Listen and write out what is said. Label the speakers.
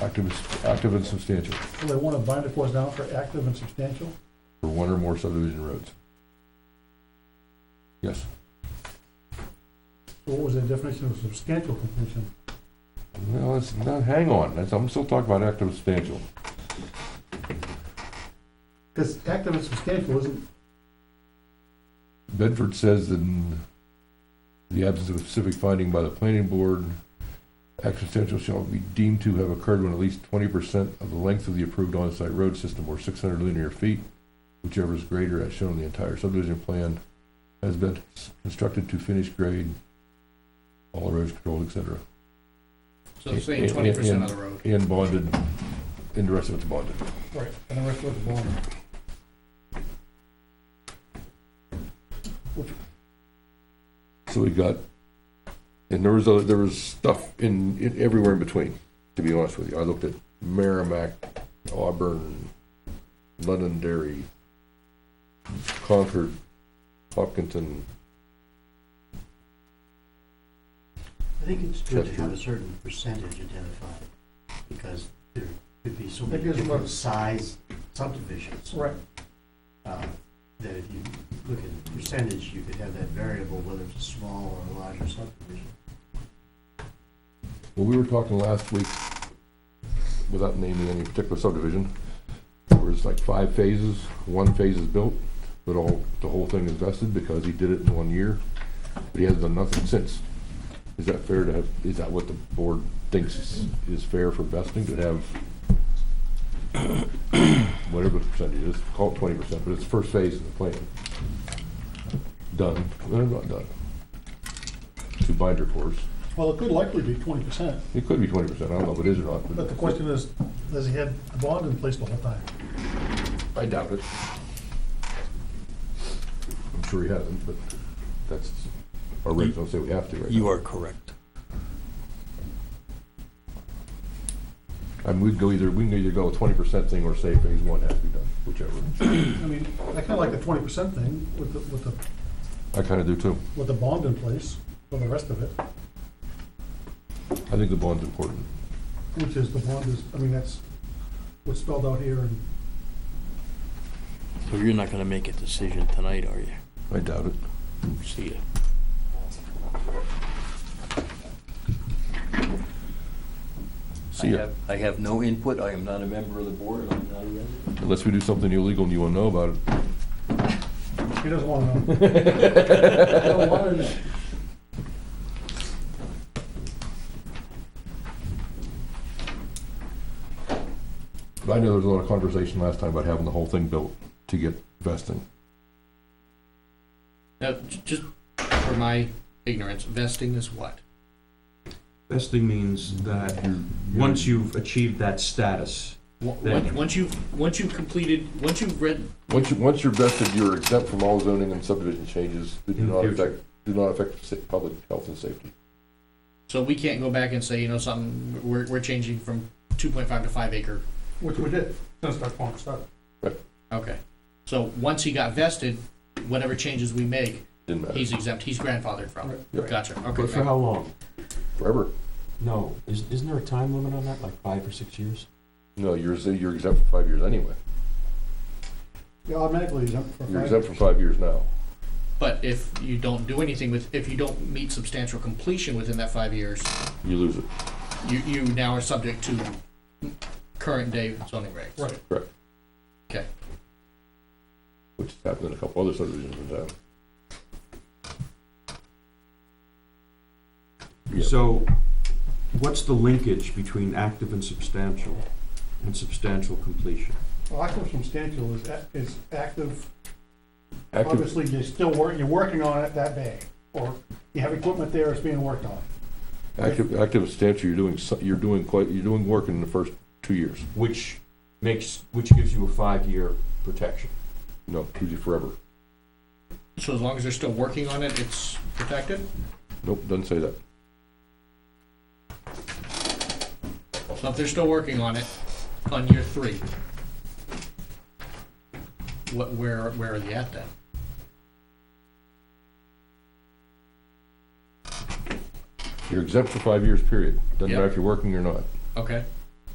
Speaker 1: active, and- active and substantial,
Speaker 2: Well, they want to bind it for us now for active and substantial?
Speaker 1: for one or more subdivision roads. Yes,
Speaker 2: So what was the definition of substantial completion?
Speaker 1: well, it's not, hang on, that's, I'm still talking about active and substantial.
Speaker 2: Because active and substantial isn't,
Speaker 1: Bedford says in the absence of a specific finding by the planning board, action potential shall be deemed to have occurred when at least twenty percent of the length of the approved on-site road system or six hundred linear feet, whichever is greater as shown in the entire subdivision plan, has been constructed to finish grade, all roads controlled, et cetera,
Speaker 3: So it's saying
Speaker 1: And- and-
Speaker 3: twenty percent of the road.
Speaker 1: and bonded, and the rest of it's bonded.
Speaker 3: Right, and the rest of the bond.
Speaker 1: So we got, and there was, other- there was stuff in, in everywhere in between, to be honest with you. I looked at Merrimack, Auburn, Londonderry, Concord, Hopkinton.
Speaker 4: I think it's good to
Speaker 1: Chester.
Speaker 4: have a certain percentage identified, because there could be so
Speaker 2: That
Speaker 4: many
Speaker 2: gives them a-
Speaker 4: different size subdivisions.
Speaker 2: Right.
Speaker 4: uh, That if you look at the percentage, you could have that variable, whether it's a small or a larger subdivision.
Speaker 1: Well, we were talking last week, without naming any particular subdivision, where it's like five phases, one phase is built, but all, the whole thing is vested because he did it in one year, but he hasn't done nothing since. Is that fair to have, is that what the board thinks is- is fair for vesting, to have whatever the percentage is, call it twenty percent, but it's the first phase of the plan. Done, they're not done. Two binder cores.
Speaker 2: well, it could likely be twenty percent,
Speaker 1: It could be twenty percent, I don't know if it is or not, but.
Speaker 2: but the question is, has he had the bond in place the whole time?
Speaker 1: I doubt it. I'm sure he hasn't, but that's, our regs don't say we have to right
Speaker 5: You
Speaker 1: now.
Speaker 5: are correct.
Speaker 1: And we'd go either, we can either go twenty percent thing or say phase one has to be done, whichever.
Speaker 2: I mean, I kind of like the twenty percent thing with the, with the,
Speaker 1: I kinda do too.
Speaker 2: with the bond in place for the rest of it,
Speaker 1: I think the bond's important.
Speaker 2: which is the bond is, I mean, that's what's spelled out here and
Speaker 5: So you're not gonna make a decision tonight, are you?
Speaker 1: I doubt it.
Speaker 5: See ya.
Speaker 1: See ya.
Speaker 5: I have no input. I am not a member of the board. I'm not a resident.
Speaker 1: Unless we do something illegal and you wanna know about it.
Speaker 2: he doesn't want to know.
Speaker 1: I
Speaker 2: don't wanna know.
Speaker 1: But I know there was a lot of conversation last time about having the whole thing built to get vesting.
Speaker 3: Now, j- just for my ignorance, vesting is what?
Speaker 6: Vesting means that once you've achieved that status,
Speaker 3: Wa-
Speaker 6: Then-
Speaker 3: Once once you've, once you've completed, once you've read,
Speaker 1: Once you, once you're vested, you're exempt from all zoning and subdivision changes that do
Speaker 6: In the
Speaker 1: not
Speaker 6: future.
Speaker 1: affect, do not affect sa- public health and safety.
Speaker 3: so we can't go back and say, you know, something, we're, we're changing from two point five to five acre.
Speaker 2: Which we did, since that bond started.
Speaker 3: Okay. So once he got vested, whatever changes we make,
Speaker 1: Didn't matter,
Speaker 3: he's exempt, he's grandfathered from.
Speaker 1: Right.
Speaker 3: Gotcha, okay.
Speaker 7: But for how long?
Speaker 1: forever.
Speaker 7: No, is, isn't there a time limit on that, like five or six years?
Speaker 1: No, you're, z- you're exempt for five years anyway.
Speaker 2: Yeah, automatically exempt for
Speaker 1: You're
Speaker 2: five
Speaker 1: exempt for five years now.
Speaker 3: But if you don't do anything with, if you don't meet substantial completion within that five years,
Speaker 1: You lose it.
Speaker 3: you, you now are subject to current day zoning regs.
Speaker 2: Right.
Speaker 1: Correct.
Speaker 3: Okay.
Speaker 1: Which has happened in a couple other subdivisions in town. Yeah.
Speaker 6: so what's the linkage between active and substantial and substantial completion?
Speaker 2: Well, active substantial is, a- is active,
Speaker 1: Active,
Speaker 2: obviously, you're still working, you're working on it that day, or you have equipment there, it's being worked on.
Speaker 1: active, active substantial, you're doing, so- you're doing quite, you're doing work in the first two years.
Speaker 6: Which makes, which gives you a five-year protection.
Speaker 1: No, gives you forever.
Speaker 3: So as long as they're still working on it, it's protected?
Speaker 1: Nope, doesn't say that.
Speaker 3: So if they're still working on it on year three, what, where, where are they at then?
Speaker 1: You're exempt for five years, period. Doesn't matter if you're working or not.
Speaker 3: Okay,